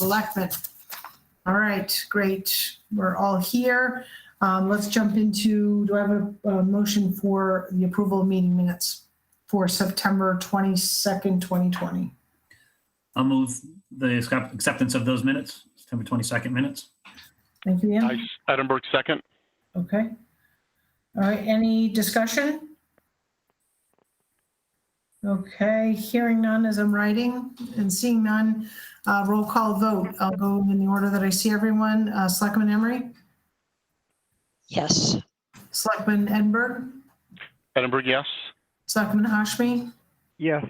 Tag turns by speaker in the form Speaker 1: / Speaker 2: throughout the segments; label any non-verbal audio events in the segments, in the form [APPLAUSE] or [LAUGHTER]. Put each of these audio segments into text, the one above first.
Speaker 1: Selectmen. All right, great. We're all here. Um, Let's jump into, do I have a uh, motion for the approval of meeting minutes for September 22nd, 2020?
Speaker 2: I'll move the accept- acceptance of those minutes, September 22nd minutes.
Speaker 1: Thank you,
Speaker 3: I,
Speaker 1: Ian.
Speaker 3: Edinburgh second.
Speaker 1: Okay. All right, any discussion? Okay, hearing none as I'm writing and seeing none. Uh, Roll call vote. I'll go in the order that I see everyone. Uh, Selectman Emery?
Speaker 4: Yes,
Speaker 1: Selectman Edinburgh?
Speaker 3: Edinburgh, yes. Uh,
Speaker 1: Selectman Hashmi?
Speaker 5: Yes,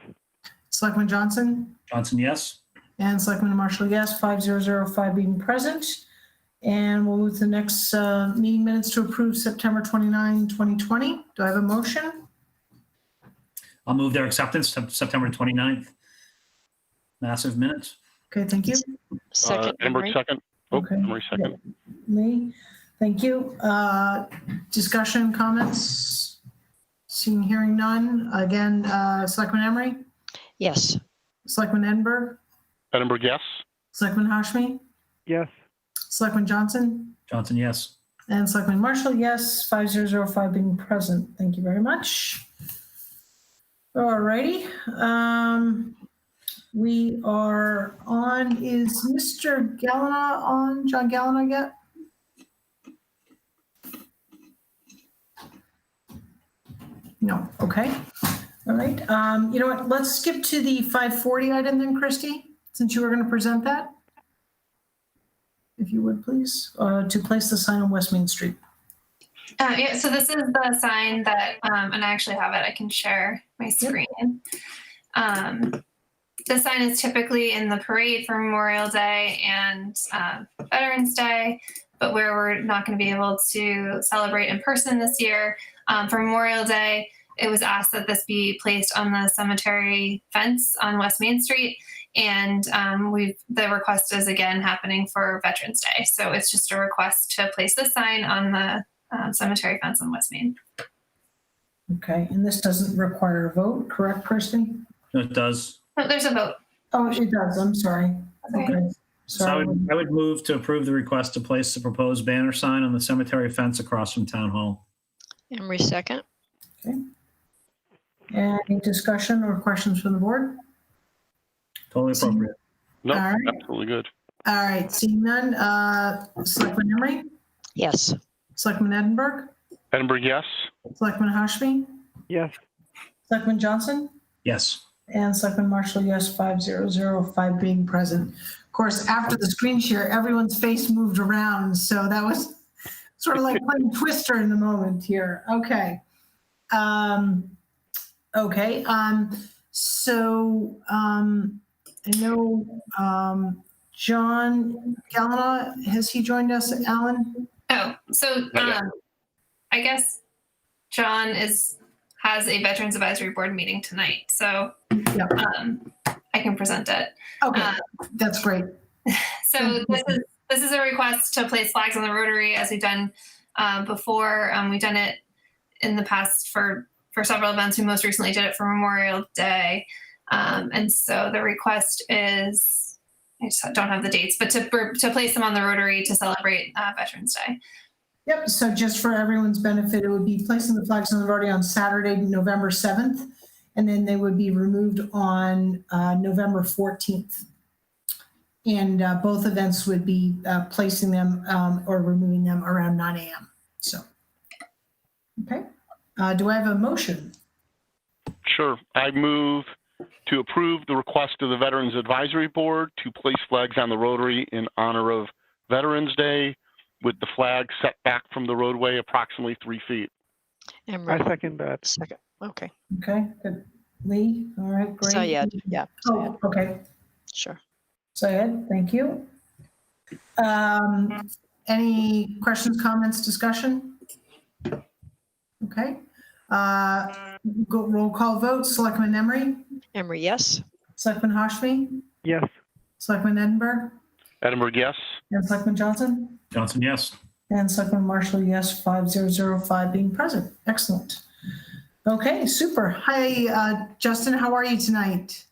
Speaker 1: Selectman Johnson?
Speaker 2: Johnson, yes.
Speaker 1: And Selectman Marshall, yes, 5005 being present. And we'll move to the next uh, meeting minutes to approve September 29, 2020. Do I have a motion?
Speaker 2: I'll move their acceptance, Sep- September 29th. Massive minutes.
Speaker 1: Okay, thank you.
Speaker 3: Uh,
Speaker 4: second
Speaker 3: Edinburgh
Speaker 4: memory.
Speaker 3: second. Oh,
Speaker 1: Okay.
Speaker 3: Emery second.
Speaker 1: Lee, thank you. Uh, Discussion, comments? Seeing, hearing none. Again, uh, Selectman Emery,
Speaker 4: Yes,
Speaker 1: Selectman Edinburgh,
Speaker 3: Edinburgh, yes.
Speaker 1: Selectman Hashmi,
Speaker 5: yes,
Speaker 1: Selectman Johnson?
Speaker 2: Johnson, yes.
Speaker 1: And Selectman Marshall, yes, 5005 being present. Thank you very much. All righty. um, We are on, is Mr. Gallina on, John Gallina yet? No, okay. All right, um, you know what, let's skip to the 540 item then, Christie, since you were going to present that if you would please, uh, to place the sign on West Main Street.
Speaker 6: Um, yeah, so this is the sign that, um, and I actually have it. I can share my screen. Um, the sign is typically in the parade for Memorial Day and um, Veterans Day, but where we're not going to be able to celebrate in person this year um, for Memorial Day, it was asked that this be placed on the cemetery fence on West Main Street. And um, we've the request is again happening for Veterans Day, so it's just a request to place the sign on the um, cemetery fence on West Main.
Speaker 1: Okay, and this doesn't require a vote, correct, Kirsty?
Speaker 2: No, It does.
Speaker 6: No, there's a vote.
Speaker 1: Oh, it does, I'm sorry.
Speaker 6: Okay.
Speaker 1: Okay,
Speaker 2: So I
Speaker 1: sorry.
Speaker 2: would, I would move to approve the request to place the proposed banner sign on the cemetery fence across from Town Hall.
Speaker 4: Emery second.
Speaker 1: Any discussion or questions from the board?
Speaker 2: Totally appropriate.
Speaker 3: No,
Speaker 1: All right.
Speaker 3: absolutely good.
Speaker 1: All right, seeing none, uh, Selectman Emery,
Speaker 4: Yes,
Speaker 1: Selectman Edinburgh,
Speaker 3: Edinburgh, yes.
Speaker 1: Selectman Hashmi,
Speaker 5: yes,
Speaker 1: Selectman Johnson?
Speaker 2: Yes.
Speaker 1: And Selectman Marshall, yes, 5005 being present. Of course, after the screen share, everyone's face moved around, so that was [LAUGHS] sort of like playing Twister in the moment here. Okay. Um, Okay, um, so um, I know um, John Galina, has he joined us, Alan?
Speaker 6: Oh, so
Speaker 3: Not yet.
Speaker 6: um, I guess John is has a Veterans Advisory Board meeting tonight, so
Speaker 1: Yeah.
Speaker 6: um, I can present it.
Speaker 1: Okay,
Speaker 6: Uh,
Speaker 1: that's great.
Speaker 6: So this is this is a request to place flags on the Rotary as we've done uh, before. Um, we've done it in the past for for several events. We most recently did it for Memorial Day, um, and so the request is I just don't have the dates, but to to place them on the Rotary to celebrate uh, Veterans Day.
Speaker 1: Yep, so just for everyone's benefit, it would be placing the flags on the Rotary on Saturday, November 7th, and then they would be removed on uh, November 14th. And uh, both events would be uh, placing them um, or removing them around 9 AM, so. Okay, Uh, do I have a motion?
Speaker 3: Sure. I move to approve the request of the Veterans Advisory Board to place flags on the Rotary in honor of Veterans Day with the flag set back from the roadway approximately three feet.
Speaker 4: Emery
Speaker 5: I second that.
Speaker 4: second. Okay,
Speaker 1: Okay, good. Lee, all right, great.
Speaker 4: Sayed, yeah, Syed,
Speaker 1: Oh, okay.
Speaker 4: sure.
Speaker 1: Syed, thank you. Um, Any questions, comments, discussion? Okay. Uh, go- Roll call vote, Selectman Emery,
Speaker 4: Emery, yes,
Speaker 1: Selectman Hashmi,
Speaker 5: Yes,
Speaker 1: Selectman Edinburgh,
Speaker 3: Edinburgh, yes.
Speaker 1: and Selectman Johnson,
Speaker 2: Johnson, yes.
Speaker 1: and Selectman Marshall, yes, 5005 being present. Excellent. Okay, super. Hi, uh, Justin, how are you tonight?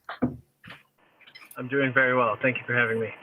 Speaker 7: I'm doing very well. Thank you for having me.